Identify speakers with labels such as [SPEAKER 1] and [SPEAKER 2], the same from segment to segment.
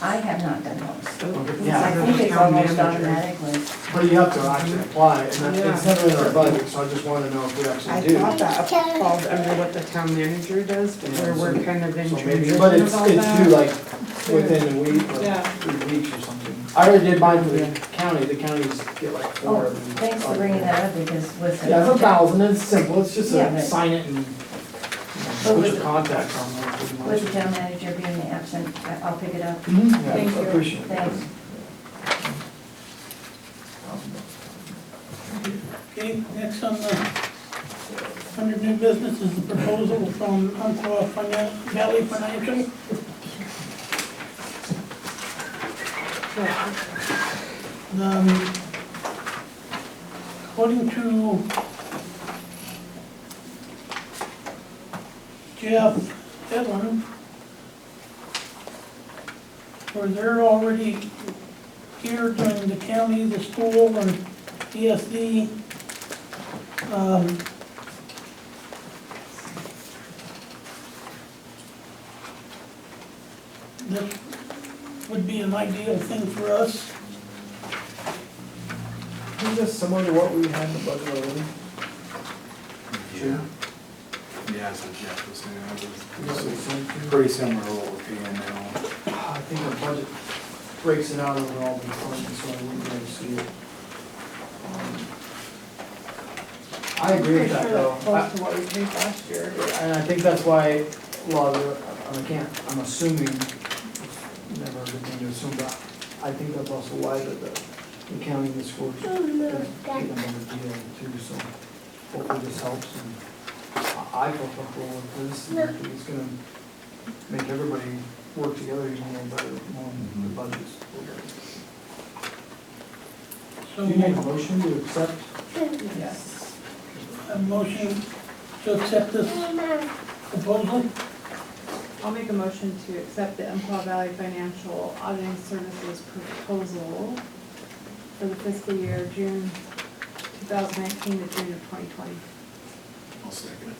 [SPEAKER 1] I have not done those. I
[SPEAKER 2] Yeah.
[SPEAKER 1] think it's almost automatically.
[SPEAKER 2] But you have to actually apply, and that- it's never in our
[SPEAKER 3] Yeah.
[SPEAKER 2] budget, so I just wanna know if we
[SPEAKER 3] I
[SPEAKER 2] actually do.
[SPEAKER 3] thought that falls under what the town manager does, but where we're kind of in
[SPEAKER 2] So
[SPEAKER 3] charge
[SPEAKER 2] maybe, but
[SPEAKER 3] of
[SPEAKER 2] it's,
[SPEAKER 3] all
[SPEAKER 2] it's due
[SPEAKER 3] that.
[SPEAKER 2] like within a week or
[SPEAKER 3] Yeah.
[SPEAKER 2] three weeks or something. I already did mine for the county, the counties get like four
[SPEAKER 1] Oh,
[SPEAKER 2] of them.
[SPEAKER 1] thanks for bringing that up because with the.
[SPEAKER 2] Yeah, it's a thousand, it's simple, it's just
[SPEAKER 1] Yeah,
[SPEAKER 2] a
[SPEAKER 1] but-
[SPEAKER 2] sign it and you know,
[SPEAKER 1] But
[SPEAKER 2] put
[SPEAKER 1] with
[SPEAKER 2] your
[SPEAKER 1] the-
[SPEAKER 2] contact on there pretty much.
[SPEAKER 1] With the town manager being absent, I- I'll pick it up.
[SPEAKER 2] Mhm, yeah,
[SPEAKER 4] Thank you.
[SPEAKER 2] I appreciate it.
[SPEAKER 1] Thanks.
[SPEAKER 4] Okay, next on the, under new business is the proposal from Umpqua Finan- Valley Financial. Um, According to Jeff Edlin, where they're already here during the county, the school, and E ESD, um, this would be an ideal thing for us.
[SPEAKER 2] Is this similar to what we had in the budget already?
[SPEAKER 5] Yeah, yeah, so Jeff was saying, it
[SPEAKER 2] Yes,
[SPEAKER 5] was
[SPEAKER 2] it's like-
[SPEAKER 5] pretty similar to what we're paying now.
[SPEAKER 2] I think our budget breaks it out over all the departments, so I wouldn't really see it. Um, I agree with that though. I-
[SPEAKER 3] Close to what we paid last year.
[SPEAKER 2] And I think that's why a lot of, the- I can't, I'm assuming, it's never a good thing to assume, but I think that's also why that the the county and the school is getting a better deal too, so hopefully this helps and I I feel comfortable with this. and I think It's gonna make everybody work together even more better on the budgets.
[SPEAKER 4] So,
[SPEAKER 2] Do you make a motion to accept?
[SPEAKER 3] Yes.
[SPEAKER 4] a motion to accept this proposal,
[SPEAKER 6] I'll make a motion to accept the Umpqua Valley Financial Auditing Services proposal for the fiscal year June 2019 to June of 2020.
[SPEAKER 5] I'll second it.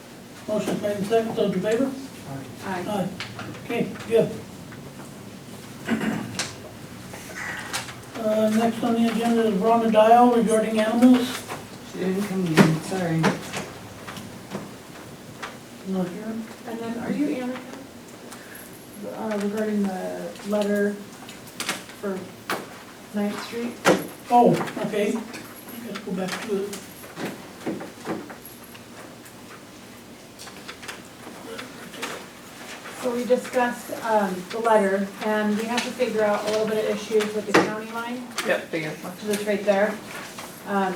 [SPEAKER 4] motion made and seconded, those in favor?
[SPEAKER 6] Aye.
[SPEAKER 4] Aye. Okay, good. Uh, next on the agenda is Rhonda Dial regarding animals,
[SPEAKER 3] She didn't come in, sorry.
[SPEAKER 4] not here.
[SPEAKER 6] And then are you Anna? Uh, Regarding the letter for Ninth Street?
[SPEAKER 4] Oh, okay, let's go back to it.
[SPEAKER 6] So we discussed um, the letter and we have to figure out a little bit of issues with the county line.
[SPEAKER 3] Yep, they got one.
[SPEAKER 6] to the right there. Um,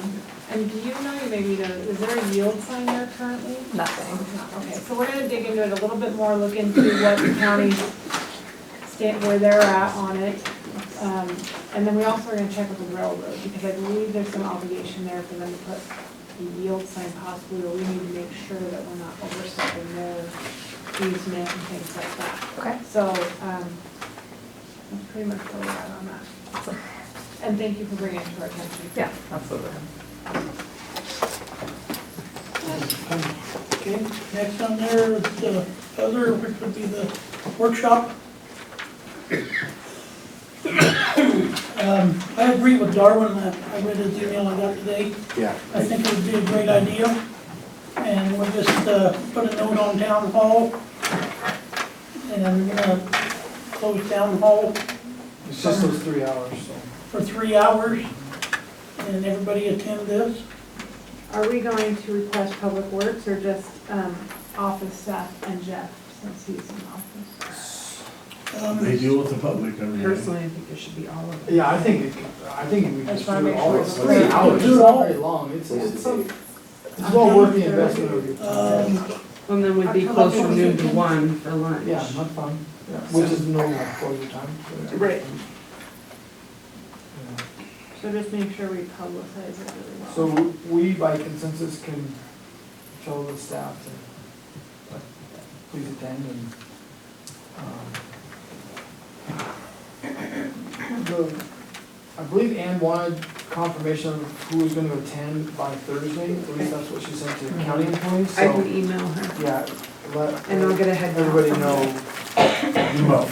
[SPEAKER 6] and do you know, maybe, the- is there a yield sign there currently?
[SPEAKER 3] Nothing.
[SPEAKER 6] Okay, so we're gonna dig into it a little bit more, look into what the county stand, where they're at on it. Um, and then we also are gonna check with the railroad, because I believe there's some obligation there for them to put a yield sign possibly, or we need to make sure that we're not overstepping their easement and things like that.
[SPEAKER 3] Okay.
[SPEAKER 6] So, um, that's pretty much where we're at on that. And thank you for bringing it to our attention.
[SPEAKER 3] Yeah, absolutely.
[SPEAKER 4] Okay, next on there is the other, which would be the workshop. Um, I agree with Darwin, that I read his email I got today.
[SPEAKER 5] Yeah.
[SPEAKER 4] I think it would be a great idea, and we'll just, uh, put a note on town hall. And we're gonna close town hall
[SPEAKER 2] It's just those three hours, so.
[SPEAKER 4] for three hours, and everybody attend this.
[SPEAKER 6] Are we going to request Public Works or just um, office staff and Jeff, since he's in office?
[SPEAKER 4] Um,
[SPEAKER 7] They deal with the public every day.
[SPEAKER 3] Personally, I think it should be all of it.
[SPEAKER 2] Yeah, I think, it- I think we
[SPEAKER 6] That's
[SPEAKER 2] just do
[SPEAKER 6] why I
[SPEAKER 2] it
[SPEAKER 6] make
[SPEAKER 2] all,
[SPEAKER 6] sure
[SPEAKER 2] it's
[SPEAKER 6] it's
[SPEAKER 2] three
[SPEAKER 4] free.
[SPEAKER 2] hours,
[SPEAKER 4] Do
[SPEAKER 2] it's
[SPEAKER 4] it all.
[SPEAKER 2] not very long, it's, it's, it's well worth the investment of your time.
[SPEAKER 4] Um,
[SPEAKER 3] And then we'd be
[SPEAKER 6] October
[SPEAKER 3] close from noon to
[SPEAKER 4] 22nd.
[SPEAKER 3] one for lunch.
[SPEAKER 2] Yeah, not fun, which is normal for your time.
[SPEAKER 3] Right.
[SPEAKER 2] Yeah.
[SPEAKER 6] So just make sure we publicize it really well.
[SPEAKER 2] So we by consensus can tell the staff to uh, please attend and, um, the- I believe Ann wanted confirmation of who was gonna attend by Thursday, at least that's what she sent to county employees,
[SPEAKER 3] I can
[SPEAKER 2] so,
[SPEAKER 3] email her
[SPEAKER 2] yeah, let
[SPEAKER 3] and I'll get a head count
[SPEAKER 2] everybody
[SPEAKER 3] from her.
[SPEAKER 2] know
[SPEAKER 7] Well,